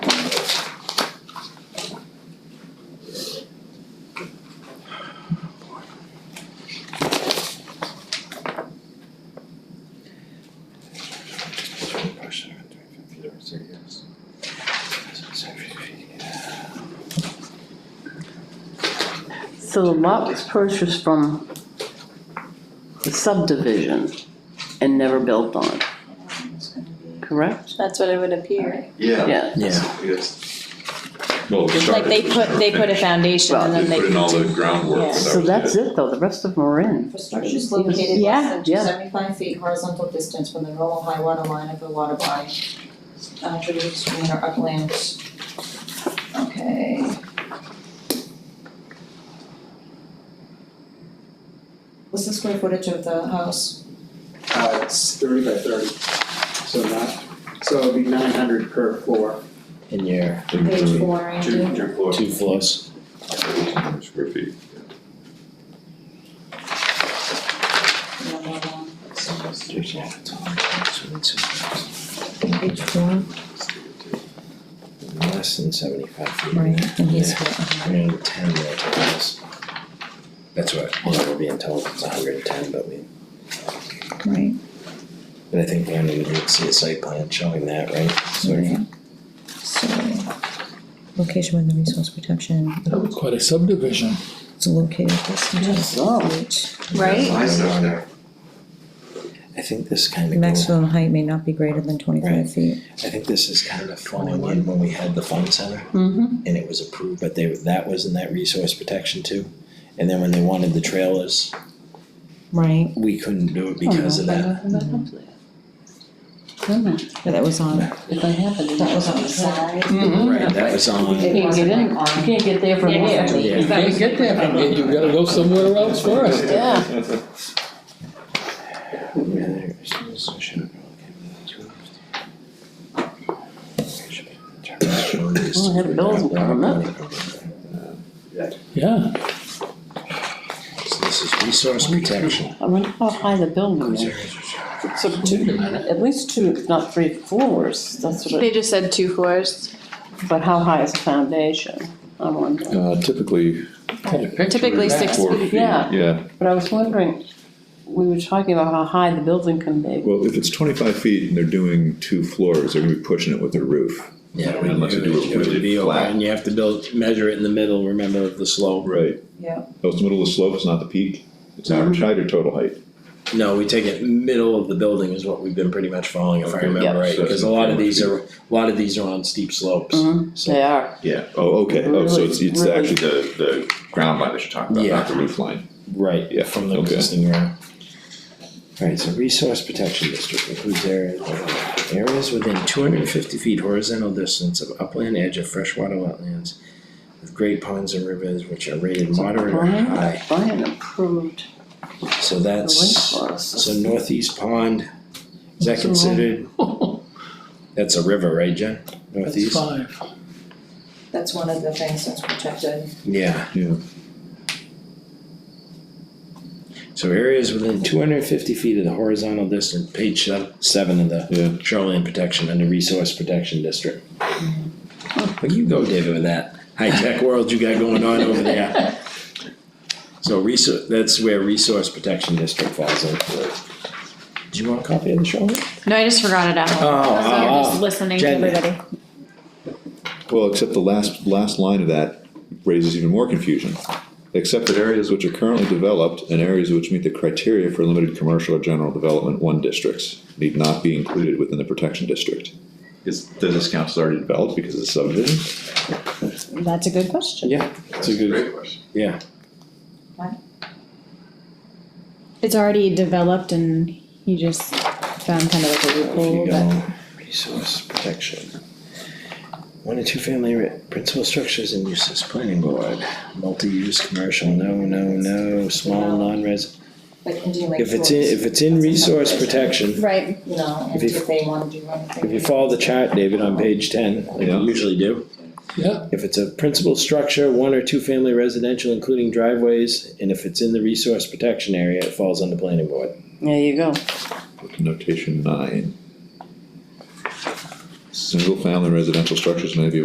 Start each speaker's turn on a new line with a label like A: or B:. A: So the lot was purchased from the subdivision and never built on, correct?
B: That's what it would appear.
C: Yeah,
A: Yeah.
D: Yeah,
C: yes.
E: Well, we
B: Like
E: started
B: they
E: with
B: put,
E: the
B: they put a
E: finish.
B: foundation and
E: They
B: then they.
E: put in all the groundwork.
B: Yeah.
E: but that
A: So
E: was
A: that's
E: it.
A: it though, the rest of them are in.
F: For structures located
B: Yeah,
F: less than
A: yeah.
F: 275 feet horizontal distance from the normal high water line of the water body, uh, tributary stream or upland. Okay. What's the square footage of the house?
G: Uh, it's thirty by thirty, so not, so it'll be nine hundred per floor.
D: in your
F: Page four, Andy.
C: Two, two floors.
D: two floors.
E: Square feet.
F: No, no, no.
D: Less
F: Page four,
D: than seventy-five feet.
F: right, and he's.
D: Three hundred and ten there, I guess. That's what, well, we're being told it's hundred and ten, but we,
F: Right,
D: but I think Brandon would need to see a site plan showing that, right? So if-
F: right. So, location within resource protection,
H: Quite a subdivision.
F: it's located less than
A: Oh.
F: 275 feet.
B: Right?
C: My stuff there.
D: I think this kind of goes,
F: Maximum height may not be greater than
D: Right.
F: twenty-five feet.
D: I think this is kind of falling in when we had the fun center.
A: Mm-hmm.
D: and it was approved, but they, that was in that resource protection too. And then when they wanted the trailers,
F: Right,
D: we couldn't do it because of that.
F: but that was on,
A: If I have it.
F: that was on the side.
A: Oh, Mm-hmm.
D: Right, that was
A: You
D: on,
A: can't get in, you can't get there from
F: Yeah,
A: there.
D: yeah.
H: You can't get there from there, you gotta go somewhere else first.
A: Yeah.
D: Oh,
A: I had a building coming up.
H: Yeah,
D: So this is resource protection.
A: I wonder how high the building is. It's up two, at least two, if not three floors, that's what
B: They
A: it,
B: just said two floors.
A: but how high is the foundation? I wonder.
E: Uh, typically,
H: had a picture of
B: Typically
H: that.
B: six
E: four feet,
A: Yeah.
E: yeah.
A: But I was wondering, we were talking about how high the building can be.
E: Well, if it's twenty-five feet and they're doing two floors, they're gonna be pushing it with their roof.
D: Yeah,
E: we- Unless you do it really flat.
D: And you have to build, measure it in the middle, remember of the slope.
E: Right.
F: Yeah.
E: Oh, it's the middle of the slope, it's not the peak, it's average height or total height?
D: No, we take it middle of the building is what we've been pretty much following, if I
E: Okay.
D: remember
E: Yeah.
D: right, because a lot of these are, a lot of these are on steep slopes.
A: Mhm.
D: So-
A: They are,
E: Mm-hmm. Yeah. Oh, okay, oh, so it's, it's
A: Really, really-
E: actually the, the ground line that you're talking about, not the roof line.
D: Right,
E: Yeah,
D: from the
E: okay.
D: existing ground. Alright, so resource protection district includes areas, areas within two hundred and fifty feet horizontal distance of upland edge of freshwater wetlands. With great ponds and rivers which are rated moderate or
A: Brian,
D: high,
A: Brian approved
D: so
A: the
D: that's, so
A: rainforest.
D: northeast pond, is that considered? That's a river, right, Jen?
H: That's
D: Northeast?
H: five.
F: That's one of the things that's protected.
D: Yeah.
E: Yeah.
D: So areas within two hundred and fifty feet of the horizontal distance, page se- seven of the
E: Yeah.
D: shoreline protection under resource protection district. Well, you go, David, with that high-tech world you got going on over there. So resource, that's where resource protection district falls in. Do you want a copy of the shoreline?
B: No, I just forgot it at home.
D: Oh,
B: So
D: oh,
B: you're
D: oh.
B: just listening to
D: Jen.
B: everybody.
E: Well, except the last, last line of that raises even more confusion. Except that areas which are currently developed and areas which meet the criteria for limited commercial or general development one districts need not be included within the protection district. Is, does this council already developed because it's subdivision?
B: That's a good question.
D: Yeah, it's a good,
C: question.
D: yeah.
B: It's already developed and you just found kind of like a
D: If you
B: loophole, but
D: go resource protection. One or two family ri- principal structures and uses planning board, multi-use commercial, no, no, no, small non-res.
F: Like Indian Lake
D: If it's in, if it's in resource protection,
B: right,
F: You know,
D: if
F: and
D: you-
F: if they wanna do anything.
D: if you follow the chart, David, on page ten, like you
E: Yeah.
D: usually do.
H: Yeah.
D: If it's a principal structure, one or two family residential, including driveways, and if it's in the resource protection area, it falls on the planning board.
A: There you go.
E: Notation nine. Single-family residential structures may be